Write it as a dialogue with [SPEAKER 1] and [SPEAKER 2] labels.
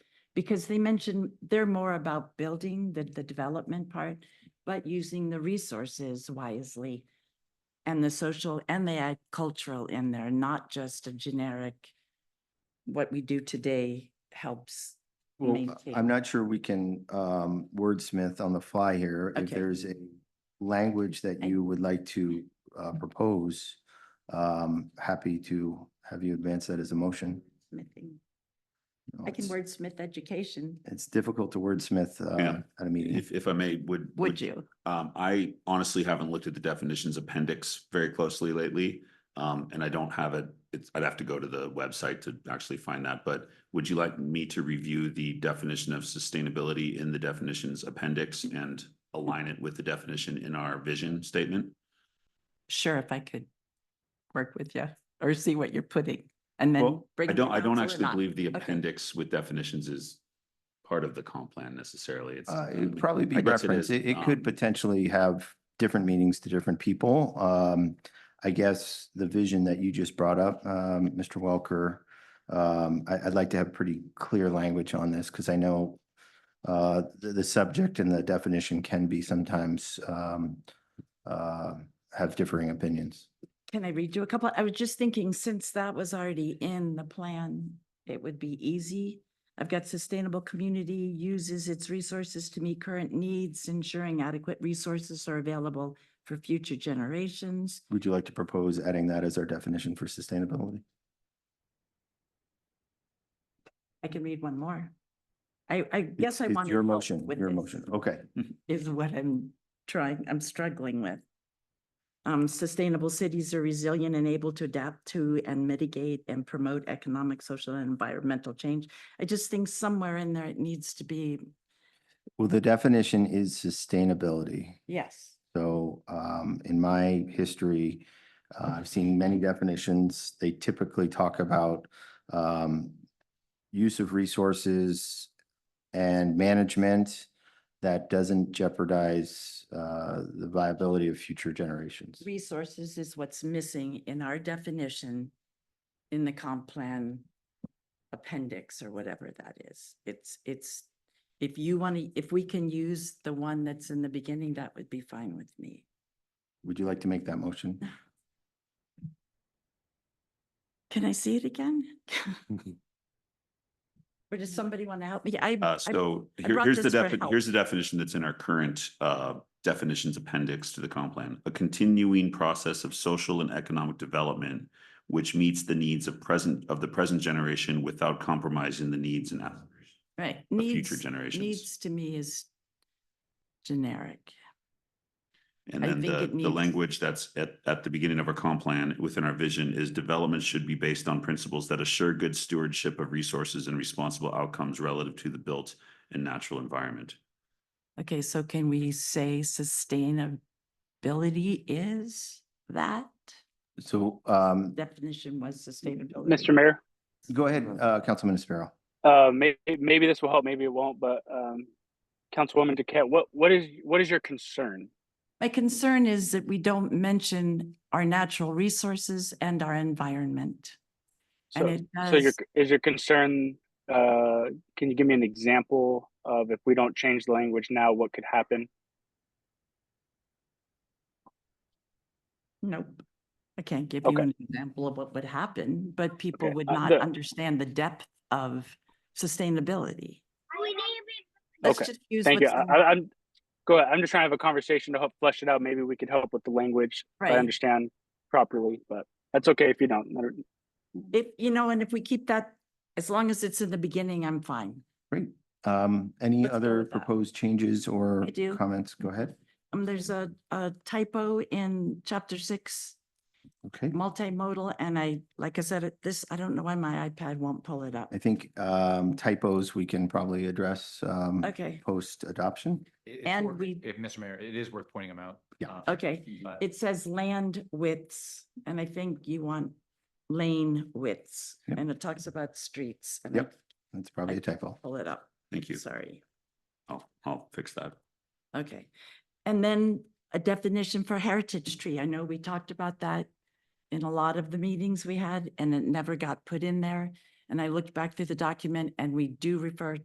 [SPEAKER 1] Because they mentioned they're more about building the, the development part, but using the resources wisely. And the social and they add cultural in there, not just a generic, what we do today helps.
[SPEAKER 2] Well,
[SPEAKER 1] maintain.
[SPEAKER 2] I'm not sure we can um wordsmith on the fly here. If
[SPEAKER 1] Okay.
[SPEAKER 2] there's a language that
[SPEAKER 1] I- Mm-hmm.
[SPEAKER 2] you would like to uh propose, um happy to have you advance that as a motion.
[SPEAKER 1] Smithing.
[SPEAKER 2] You know,
[SPEAKER 1] I can
[SPEAKER 2] it's-
[SPEAKER 1] wordsmith education,
[SPEAKER 2] It's difficult to wordsmith uh
[SPEAKER 3] Yeah.
[SPEAKER 2] at a meeting.
[SPEAKER 3] If, if I may, would.
[SPEAKER 1] would you?
[SPEAKER 3] Um, I honestly haven't looked at the definitions appendix very closely lately. Um, and I don't have it, it's, I'd have to go to the website to actually find that, but would you like me to review the definition of sustainability in the definitions appendix and align it with the definition in our vision statement?
[SPEAKER 1] Sure, if I could work with you or see what you're putting and then
[SPEAKER 3] Well,
[SPEAKER 1] bring.
[SPEAKER 3] I
[SPEAKER 1] it
[SPEAKER 3] don't,
[SPEAKER 1] to
[SPEAKER 3] I don't
[SPEAKER 1] council or
[SPEAKER 3] actually
[SPEAKER 1] not.
[SPEAKER 3] believe the
[SPEAKER 1] Okay.
[SPEAKER 3] appendix with definitions is part of the comp plan necessarily. It's,
[SPEAKER 2] Uh,
[SPEAKER 3] um,
[SPEAKER 2] it'd probably be
[SPEAKER 3] I guess it
[SPEAKER 2] reference.
[SPEAKER 3] is,
[SPEAKER 2] It, it could
[SPEAKER 3] um,
[SPEAKER 2] potentially have different meanings to different people. Um, I guess the vision that you just brought up, um, Mr. Welker, um, I, I'd like to have pretty clear language on this because I know uh, the, the subject and the definition can be sometimes, um, uh, have differing opinions.
[SPEAKER 1] Can I read you a couple? I was just thinking, since that was already in the plan, it would be easy. I've got sustainable community uses its resources to meet current needs, ensuring adequate resources are available for future generations.
[SPEAKER 2] Would you like to propose adding that as our definition for sustainability?
[SPEAKER 1] I can read one more. I, I guess
[SPEAKER 2] It's-
[SPEAKER 1] I
[SPEAKER 2] it's
[SPEAKER 1] want.
[SPEAKER 2] Your motion, your motion. Okay.
[SPEAKER 1] is what I'm trying, I'm struggling with. Um, sustainable cities are resilient and able to adapt to and mitigate and promote economic, social, and environmental change. I just think somewhere in there it needs to be,
[SPEAKER 2] Well, the definition is sustainability.
[SPEAKER 1] yes.
[SPEAKER 2] So um, in my history, uh, I've seen many definitions. They typically talk about um, use of resources and management that doesn't jeopardize uh, the viability of future generations.
[SPEAKER 1] Resources is what's missing in our definition in the comp plan appendix or whatever that is. It's, it's, if you want to, if we can use the one that's in the beginning, that would be fine with me.
[SPEAKER 2] Would you like to make that motion?
[SPEAKER 1] Can I see it again? Or does somebody want to help me? I,
[SPEAKER 3] Mm-hmm. Uh,
[SPEAKER 1] I-
[SPEAKER 3] so
[SPEAKER 1] I
[SPEAKER 3] here-
[SPEAKER 1] brought
[SPEAKER 3] here's the
[SPEAKER 1] this for
[SPEAKER 3] defi-
[SPEAKER 1] help.
[SPEAKER 3] here's the definition that's in our current uh definitions appendix to the comp plan. A continuing process of social and economic development which meets the needs of present of the present generation without compromising the needs and aspirations
[SPEAKER 1] right,
[SPEAKER 3] of future
[SPEAKER 1] needs,
[SPEAKER 3] generations.
[SPEAKER 1] needs to me is generic.
[SPEAKER 3] And
[SPEAKER 1] I
[SPEAKER 3] then
[SPEAKER 1] think
[SPEAKER 3] the
[SPEAKER 1] it
[SPEAKER 3] the
[SPEAKER 1] needs-
[SPEAKER 3] language that's at at the beginning of our comp plan within our vision is development should be based on principles that assure good stewardship of resources and responsible outcomes relative to the built and natural environment.
[SPEAKER 1] Okay, so can we say sustainability is that?
[SPEAKER 2] So um,
[SPEAKER 1] Definition was sustainability.
[SPEAKER 4] Mr. Mayor,
[SPEAKER 2] go ahead,
[SPEAKER 3] Mm-hmm.
[SPEAKER 2] uh, Councilman Sparrow.
[SPEAKER 4] uh, may, maybe this will help, maybe it won't, but, um, Councilwoman Duquette, what, what is, what is your concern?
[SPEAKER 1] My concern is that we don't mention our natural resources and our environment. And
[SPEAKER 4] So,
[SPEAKER 1] it
[SPEAKER 4] so your,
[SPEAKER 1] does,
[SPEAKER 4] is your concern, uh, can you give me an example of if we don't change the language now, what could happen?
[SPEAKER 1] nope. I can't give you
[SPEAKER 4] Okay.
[SPEAKER 1] an example of what would happen, but people
[SPEAKER 4] Okay,
[SPEAKER 1] would
[SPEAKER 4] uh,
[SPEAKER 1] not
[SPEAKER 4] the-
[SPEAKER 1] understand the depth of sustainability.
[SPEAKER 5] We need
[SPEAKER 1] Let's
[SPEAKER 4] Okay,
[SPEAKER 1] just use
[SPEAKER 4] Thank you.
[SPEAKER 1] what's
[SPEAKER 4] I,
[SPEAKER 1] in-
[SPEAKER 4] I- I'm, go ahead. I'm just trying to have a conversation to help flesh it out. Maybe we could help with the language. if I
[SPEAKER 1] Right.
[SPEAKER 4] understand properly, but that's okay if you don't. No-
[SPEAKER 1] if, you know, and if we keep that, as long as it's in the beginning, I'm fine.
[SPEAKER 2] Um, Any
[SPEAKER 1] Let's go
[SPEAKER 2] other
[SPEAKER 1] with that.
[SPEAKER 2] proposed changes or
[SPEAKER 1] I do.
[SPEAKER 2] comments? Go ahead.
[SPEAKER 1] Um, there's a, a typo in chapter six,
[SPEAKER 2] Okay.
[SPEAKER 1] multimodal, and I, like I said, it- this, I don't know why my iPad won't pull it up.
[SPEAKER 2] I think um, typos we can probably address um,
[SPEAKER 1] Okay,
[SPEAKER 2] post adoption.
[SPEAKER 6] It- it's
[SPEAKER 1] And
[SPEAKER 6] worth-
[SPEAKER 1] we-
[SPEAKER 6] If, Mr. Mayor, it is worth pointing them out.
[SPEAKER 2] Yeah.
[SPEAKER 6] uh,
[SPEAKER 1] okay.
[SPEAKER 6] but-
[SPEAKER 1] It says land widths, and I think you want lane widths,
[SPEAKER 2] Yep.
[SPEAKER 1] and it talks about streets. and I
[SPEAKER 2] Yep. That's probably a typo.
[SPEAKER 1] Pull it up.
[SPEAKER 3] Thank you.
[SPEAKER 1] Sorry.
[SPEAKER 3] I'll I'll fix that.
[SPEAKER 1] Okay. And then a definition for heritage tree. I know we talked about that in a lot of the meetings we had and it never got put in there. And I looked back through the document and we do refer